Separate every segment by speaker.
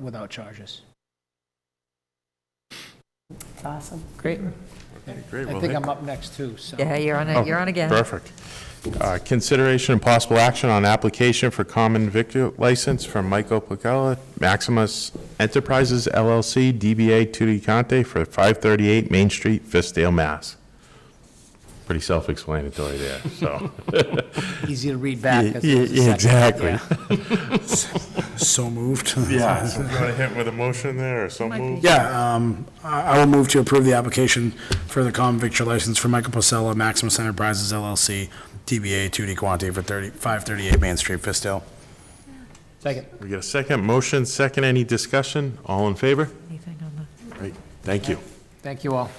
Speaker 1: without charges.
Speaker 2: It's awesome.
Speaker 3: Great.
Speaker 4: Great,
Speaker 1: I
Speaker 4: well,
Speaker 1: think
Speaker 4: hey-
Speaker 1: I'm up next too, so.
Speaker 3: Yeah, you're on, a-
Speaker 4: Oh,
Speaker 3: you're on again.
Speaker 4: Perfect. Uh, Consideration and possible action on application for common vic license from Michael Placella, Maximus Enterprises LLC, DBA Tutti Conte for 538 Main Street, Fistale, Mass. Pretty self-explanatory there, so.
Speaker 1: Easy to read back. 'cause
Speaker 4: Yeah,
Speaker 1: it was a second.
Speaker 4: exactly.
Speaker 1: Yeah.
Speaker 5: So moved.
Speaker 4: Yeah, so do you want to hit with a motion there, or so moved?
Speaker 5: Yeah, um, I I will move to approve the application for the common victor license for Michael Pacella, Maximus Enterprises LLC, DBA 2D Quante for 30 538 Main Street, Fistale.
Speaker 1: Second.
Speaker 4: We get a second, motion, second, any discussion? All in favor?
Speaker 3: Anything on the-
Speaker 4: Great, thank you.
Speaker 1: Thank you all.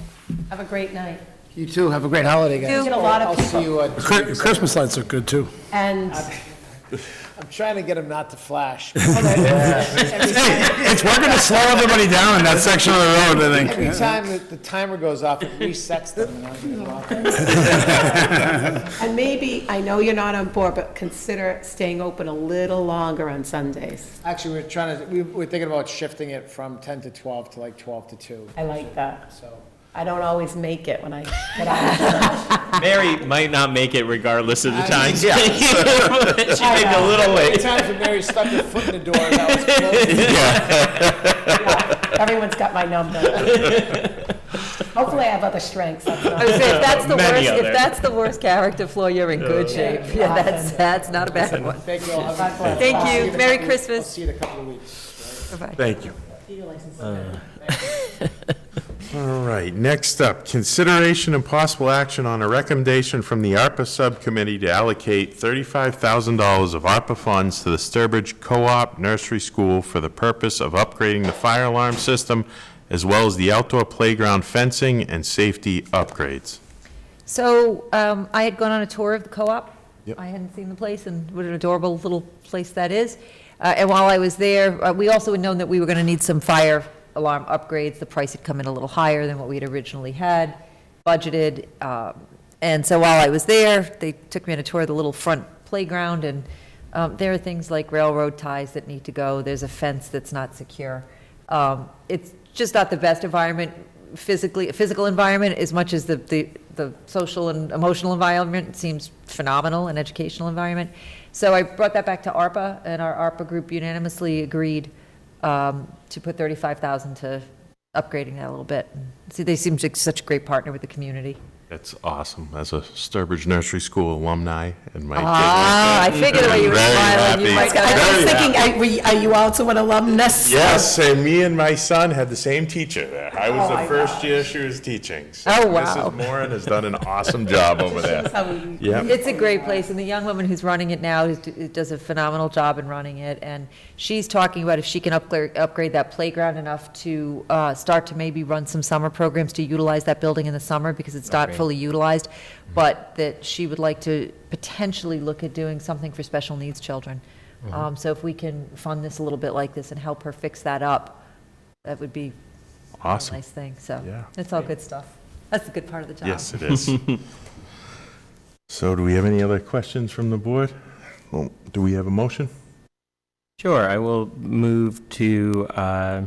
Speaker 2: Have a great night.
Speaker 1: You too. Have a great holiday, guys.
Speaker 3: You.
Speaker 2: Get a lot of
Speaker 1: I'll see you. uh, two
Speaker 5: Cri-
Speaker 1: weeks.
Speaker 5: Christmas lights look good, too.
Speaker 2: And
Speaker 1: I'm trying to get him not to flash.
Speaker 5: It's working to slow everybody down in that section of the road, I think.
Speaker 1: Every time that the timer goes off, it resets them. and I'm gonna walk out.
Speaker 2: and maybe, I know you're not on board, but consider staying open a little longer on Sundays.
Speaker 1: Actually, we're trying to, we- we're thinking about shifting it from 10 to 12 to like 12 to 2,
Speaker 2: I like that.
Speaker 1: so.
Speaker 2: I don't always make it when I get out.
Speaker 6: Mary might not make it regardless of the time. she may be
Speaker 2: know.
Speaker 6: a little
Speaker 1: Every
Speaker 6: late.
Speaker 1: time that Mary stuck her foot in the door, that was closed.
Speaker 2: Everyone's got my number. Hopefully I have other strengths. that's
Speaker 3: I
Speaker 2: not-
Speaker 3: would say, if that's the
Speaker 6: Many
Speaker 3: worst, if
Speaker 6: other.
Speaker 3: that's the worst character flaw, you're in good shape. Yeah, that's, that's not a bad one.
Speaker 1: Thank you all. Have a-
Speaker 3: Thank
Speaker 1: I'll see
Speaker 3: you.
Speaker 1: in a
Speaker 3: Merry
Speaker 1: couple-
Speaker 3: Christmas.
Speaker 1: I'll see you in a couple of weeks.
Speaker 3: Bye-bye.
Speaker 4: Thank you. All right, next up, consideration and possible action on a recommendation from the ARPA Subcommittee to allocate $35,000 of ARPA funds to the Sturbridge Co-op Nursery School for the purpose of upgrading the fire alarm system, as well as the outdoor playground fencing and safety upgrades.
Speaker 3: So um, I had gone on a tour of the co-op.
Speaker 4: Yep.
Speaker 3: I hadn't seen the place, and what an adorable little place that is. Uh, And while I was there, uh, we also had known that we were going to need some fire alarm upgrades. The price had come in a little higher than what we had originally had budgeted. Um, And so while I was there, they took me on a tour of the little front playground, and um, there are things like railroad ties that need to go. There's a fence that's not secure. Um, It's just not the best environment physically, physical environment as much as the, the, the social and emotional environment seems phenomenal, and educational environment. So I brought that back to ARPA, and our ARPA group unanimously agreed um, to put 35,000 to upgrading that a little bit. See, they seem like such a great partner with the community.
Speaker 4: That's awesome, as a Sturbridge Nursery School alumni and my.
Speaker 3: Ah, I figured the way you were
Speaker 4: Very
Speaker 3: smiling, you
Speaker 4: happy,
Speaker 3: might got-
Speaker 2: I
Speaker 4: very
Speaker 2: was
Speaker 4: happy.
Speaker 2: thinking, I- we- are you also an alumnus?
Speaker 4: Yes, and me and my son had the same teacher there. I was
Speaker 2: Oh,
Speaker 4: the
Speaker 2: my
Speaker 4: first year she was teaching. So
Speaker 3: Oh, wow.
Speaker 4: Mrs. Moran has done an awesome job over there.
Speaker 2: So we-
Speaker 4: Yep.
Speaker 3: It's a great place, and the young woman who's running it now is- does a phenomenal job in running it, and she's talking about if she can upgrade, upgrade that playground enough to uh, start to maybe run some summer programs to utilize that building in the summer, because it's not fully utilized, but that she would like to potentially look at doing something for special needs children. Um, So if we can fund this a little bit like this and help her fix that up, that would be a
Speaker 4: Awesome.
Speaker 3: nice thing, so.
Speaker 4: Yeah.
Speaker 3: It's all good stuff. That's the good part of the job.
Speaker 4: Yes, it is. So do we have any other questions from the board? Well, Do we have a motion?
Speaker 6: Sure, I will move to uh,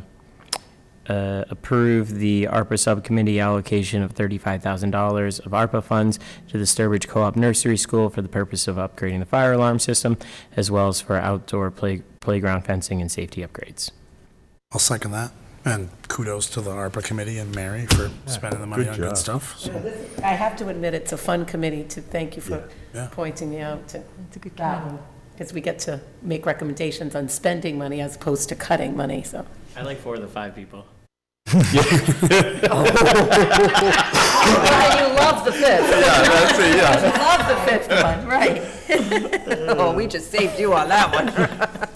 Speaker 6: uh, approve the ARPA Subcommittee allocation of $35,000 of ARPA funds to the Sturbridge Co-op Nursery School for the purpose of upgrading the fire alarm system, as well as for outdoor play- playground fencing and safety upgrades.
Speaker 5: I'll second that. And kudos to the ARPA committee and Mary for spending the money
Speaker 4: good
Speaker 5: on
Speaker 4: job.
Speaker 5: good stuff. so.
Speaker 2: I have to admit, it's a fun committee to, thank you for
Speaker 5: Yeah.
Speaker 2: pointing out to
Speaker 3: It's a good
Speaker 2: that
Speaker 3: commitment.
Speaker 2: because we get to make recommendations on spending money as opposed to cutting money, so.
Speaker 6: I like four of the five people.
Speaker 3: Oh, you love the fifth.
Speaker 4: Yeah, that's it, yeah.
Speaker 3: Love the fifth one, right. Oh, we just saved you on that one.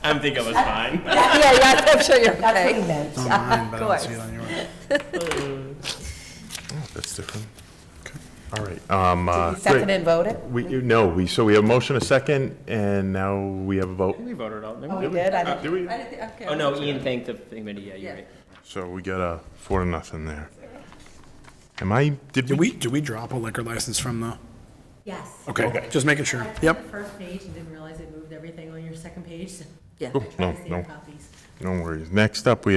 Speaker 6: I'm thinking it was fine.
Speaker 3: Yeah, yeah, I'm sure you're
Speaker 2: That's what
Speaker 3: okay.
Speaker 2: he meant.
Speaker 5: Not mine, but I don't see
Speaker 3: course.
Speaker 5: it on yours.
Speaker 4: That's different. All right, um, uh,
Speaker 2: Second
Speaker 4: great.
Speaker 2: and voted?
Speaker 4: We, you- no, we, so we have a motion, a second, and now we have a vote.
Speaker 6: We voted all
Speaker 2: Oh, we did? I didn't-
Speaker 4: Do we?
Speaker 6: Oh, no, Ian thanked the committee, yeah,
Speaker 3: Yeah.
Speaker 6: you're right.
Speaker 4: So we got a four to nothing there. Am I, did
Speaker 5: Did
Speaker 4: we?
Speaker 5: we, did we drop a liquor license from the,
Speaker 7: Yes.
Speaker 5: okay, just making sure.
Speaker 7: I
Speaker 5: Yep.
Speaker 7: did the first page and didn't realize I moved everything on your second page, so
Speaker 3: Yeah.
Speaker 4: Cool.
Speaker 7: I
Speaker 4: Oh, No,
Speaker 7: tried to
Speaker 4: no.
Speaker 7: save copies.
Speaker 4: No worries. Next up, we